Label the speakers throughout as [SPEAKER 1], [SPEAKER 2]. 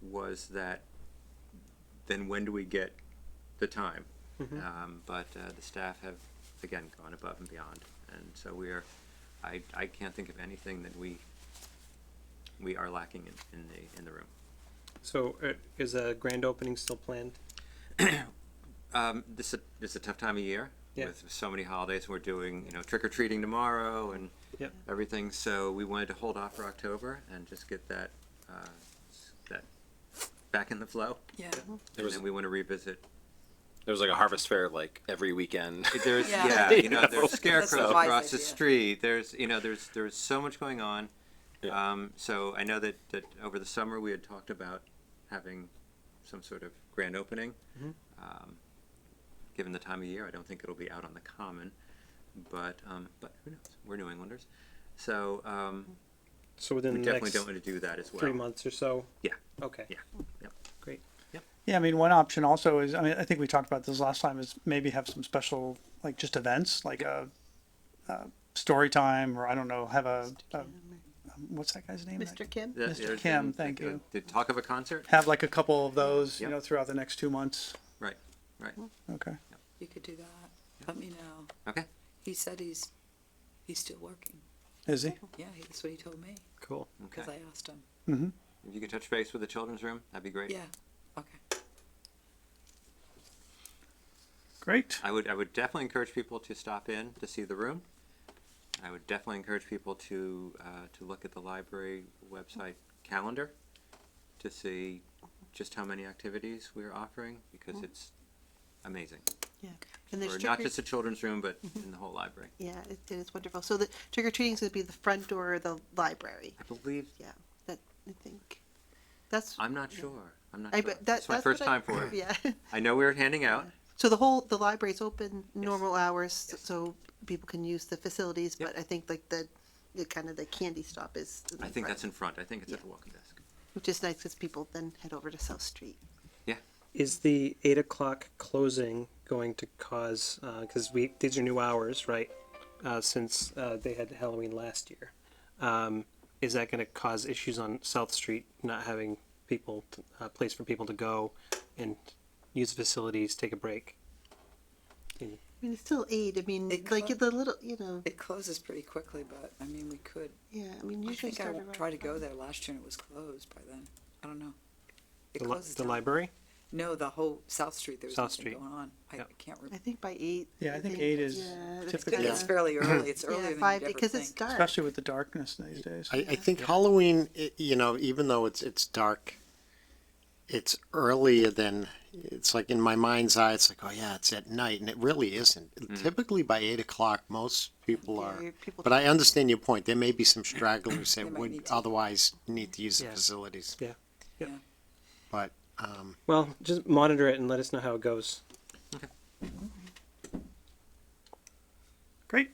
[SPEAKER 1] was that, then when do we get the time?
[SPEAKER 2] Mm-hmm.
[SPEAKER 1] Um, But uh, the staff have, again, gone above and beyond. And so we are, I, I can't think of anything that we, we are lacking in, in the, in the room.
[SPEAKER 2] So uh, is a grand opening still planned?
[SPEAKER 1] Um, this is, this is a tough time of year
[SPEAKER 2] Yeah.
[SPEAKER 1] with so many holidays. We're doing, you know, trick or treating tomorrow and
[SPEAKER 2] Yep.
[SPEAKER 1] everything. So we wanted to hold off for October and just get that, uh, that back in the flow.
[SPEAKER 3] Yeah.
[SPEAKER 1] And
[SPEAKER 4] was-
[SPEAKER 1] then we want to revisit.
[SPEAKER 4] There was like a harvest fair like every weekend.
[SPEAKER 1] There's, yeah,
[SPEAKER 3] Yeah.
[SPEAKER 1] you know, there's scarecrows
[SPEAKER 3] wise
[SPEAKER 1] across the
[SPEAKER 3] idea.
[SPEAKER 1] street. There's, you know, there's, there's so much going on.
[SPEAKER 4] Yeah.
[SPEAKER 1] Um, so I know that, that over the summer we had talked about having some sort of grand opening. Um, given the time of year, I don't think it'll be out on the common, but, um, but who knows? We're New Englanders. So, um,
[SPEAKER 2] So
[SPEAKER 1] we
[SPEAKER 2] within the
[SPEAKER 1] definitely
[SPEAKER 2] next
[SPEAKER 1] don't want to do that as well.
[SPEAKER 2] three months or so?
[SPEAKER 1] Yeah.
[SPEAKER 2] Okay.
[SPEAKER 1] Yeah. Yep.
[SPEAKER 2] Great.
[SPEAKER 5] Yeah, I mean, one option also is, I mean, I think we talked about this last time, is maybe have some special, like just events, like a, a story time, or I don't know, have a, a um, what's that guy's name?
[SPEAKER 3] Mr. Kim?
[SPEAKER 1] That-
[SPEAKER 5] Mr.
[SPEAKER 1] there's
[SPEAKER 5] Kim,
[SPEAKER 1] been,
[SPEAKER 5] thank
[SPEAKER 1] like, a-
[SPEAKER 5] you.
[SPEAKER 1] The talk of a concert?
[SPEAKER 5] Have like a couple of those, you
[SPEAKER 1] Yeah.
[SPEAKER 5] know, throughout the next two months.
[SPEAKER 1] Right, right.
[SPEAKER 5] Okay.
[SPEAKER 3] You could do that. Let me know.
[SPEAKER 1] Okay.
[SPEAKER 3] He said he's, he's still working.
[SPEAKER 5] Is he?
[SPEAKER 3] Yeah, he- that's what he told me,
[SPEAKER 2] Cool.
[SPEAKER 3] because
[SPEAKER 1] Okay.
[SPEAKER 3] I asked him.
[SPEAKER 5] Mm-hmm.
[SPEAKER 1] If you could touch base with the children's room, that'd be great.
[SPEAKER 3] Yeah, okay.
[SPEAKER 5] Great.
[SPEAKER 1] I would I would definitely encourage people to stop in to see the room. I would definitely encourage people to uh, to look at the library website calendar to see just how many activities we're offering because it's amazing.
[SPEAKER 6] Yeah, and
[SPEAKER 1] Or
[SPEAKER 6] there's
[SPEAKER 1] not
[SPEAKER 6] trick or,
[SPEAKER 1] just the children's room, but in the whole library.
[SPEAKER 6] yeah, it, it is wonderful. So the trick or treating is going to be the front door or the library.
[SPEAKER 1] I believe
[SPEAKER 6] Yeah, that I think that's.
[SPEAKER 1] I'm not sure. I'm not
[SPEAKER 6] I
[SPEAKER 1] sure.
[SPEAKER 6] bet that,
[SPEAKER 1] it's my
[SPEAKER 6] that's
[SPEAKER 1] first
[SPEAKER 6] what I-
[SPEAKER 1] time for it.
[SPEAKER 6] Yeah.
[SPEAKER 1] I know we were handing out.
[SPEAKER 6] So the whole the library's open normal hours,
[SPEAKER 1] Yes.
[SPEAKER 6] so people can use the facilities.
[SPEAKER 1] Yep.
[SPEAKER 6] But I think like the the kind of the candy stop is.
[SPEAKER 1] I think that's in front. I think it's at
[SPEAKER 6] Yeah.
[SPEAKER 1] the walking desk.
[SPEAKER 6] Which is nice because people then head over to South Street.
[SPEAKER 2] Is the eight o'clock closing going to cause, because we, these are new hours, right? Uh, Since uh, they had Halloween last year. Um, Is that going to cause issues on South Street, not having people, t- a place for people to go and use facilities, take a break?
[SPEAKER 6] I mean, it's still eight. I mean,
[SPEAKER 3] It
[SPEAKER 6] like
[SPEAKER 3] clo-
[SPEAKER 6] the little, you know,
[SPEAKER 3] It closes pretty quickly, but, I mean, we could,
[SPEAKER 6] yeah. I mean,
[SPEAKER 3] I
[SPEAKER 6] usually
[SPEAKER 3] think I
[SPEAKER 6] start
[SPEAKER 3] won't
[SPEAKER 6] around
[SPEAKER 3] try to go
[SPEAKER 6] five.
[SPEAKER 3] there. Last year and it was closed by then. I don't know. It
[SPEAKER 2] The li-
[SPEAKER 3] closes
[SPEAKER 2] The
[SPEAKER 3] down.
[SPEAKER 2] library?
[SPEAKER 3] No, the whole South Street, there was
[SPEAKER 2] South
[SPEAKER 3] nothing
[SPEAKER 2] Street.
[SPEAKER 3] going on. I
[SPEAKER 2] Yeah.
[SPEAKER 3] can't
[SPEAKER 6] I
[SPEAKER 3] remember.
[SPEAKER 6] think by eight.
[SPEAKER 5] Yeah, I think eight is
[SPEAKER 6] yeah, that's
[SPEAKER 5] typically-
[SPEAKER 6] kinda-
[SPEAKER 3] It's fairly early. It's
[SPEAKER 6] uh, yeah,
[SPEAKER 3] earlier than
[SPEAKER 6] five
[SPEAKER 3] you'd ever
[SPEAKER 6] because it's
[SPEAKER 3] think.
[SPEAKER 6] dark.
[SPEAKER 5] Especially with the darkness these days.
[SPEAKER 7] I, I think Halloween, i you know, even though it's it's dark, it's earlier than it's like in my mind's eye. It's like, oh yeah, it's at night, and it really isn't. Typically by eight o'clock, most people
[SPEAKER 6] Yeah,
[SPEAKER 7] are.
[SPEAKER 6] your people-
[SPEAKER 7] But I understand your point. There may be some stragglers
[SPEAKER 3] They
[SPEAKER 7] that
[SPEAKER 3] might
[SPEAKER 7] would
[SPEAKER 3] need to.
[SPEAKER 7] otherwise need to use the
[SPEAKER 2] Yeah.
[SPEAKER 7] facilities,
[SPEAKER 2] Yeah.
[SPEAKER 7] but um,
[SPEAKER 2] Well, just monitor it and let us know how it goes.
[SPEAKER 5] Great.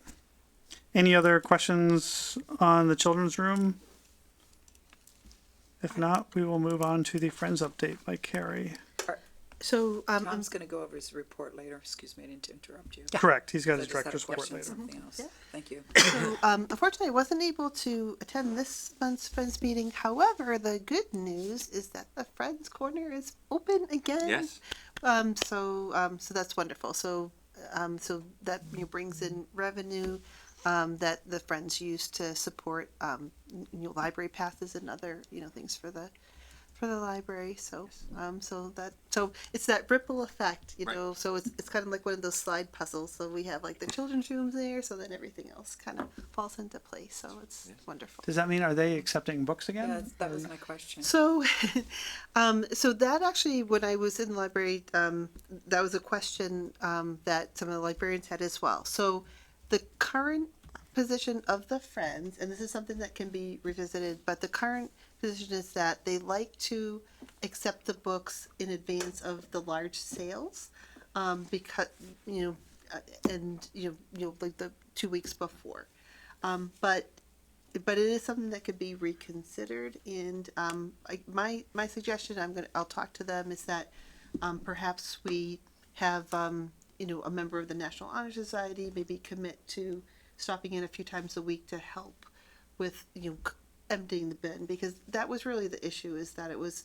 [SPEAKER 5] Any other questions on the children's room? If not, we will move on to the Friends update by Carrie.
[SPEAKER 6] So um, I'm
[SPEAKER 3] Tom's gonna go over his report later. Excuse me, I didn't interrupt you.
[SPEAKER 5] Correct. He's
[SPEAKER 3] I
[SPEAKER 5] got his
[SPEAKER 3] just had a
[SPEAKER 5] director's report
[SPEAKER 3] question,
[SPEAKER 5] later.
[SPEAKER 3] Something else.
[SPEAKER 6] Mm-hmm. Yeah.
[SPEAKER 3] Thank you.
[SPEAKER 6] so, um, unfortunately, I wasn't able to attend this month's Friends meeting. However, the good news is that the Friends Corner is open again.
[SPEAKER 1] Yes.
[SPEAKER 6] Um, so, um, so that's wonderful. So, um, so that you know, brings in revenue um, that the Friends use to support um, n- you know, library passes and other you know things for the for the library. So, um, so that so it's that ripple effect, you
[SPEAKER 1] Right.
[SPEAKER 6] know. So it's it's kind of like one of those slide puzzles. So we have like the children's rooms there, so then everything else kind of falls into place. So it's wonderful.
[SPEAKER 5] Does that mean, are they accepting books again?
[SPEAKER 3] Yeah, that was my question.
[SPEAKER 6] So, um, so that actually, when I was in the library, um, that was a question um, that some of the librarians had as well. So, the current position of the Friends, and this is something that can be revisited, but the current position is that they like to accept the books in advance of the large sales, um, because you know, uh, and you know, you know, like the two weeks before, um, but but it is something that could be reconsidered. And um, I, my my suggestion, I'm gonna, I'll talk to them, is that um, perhaps we have um, you know a member of the National Honor Society maybe commit to stopping in a few times a week to help with you know c- emptying the bin because that was really the issue is that it was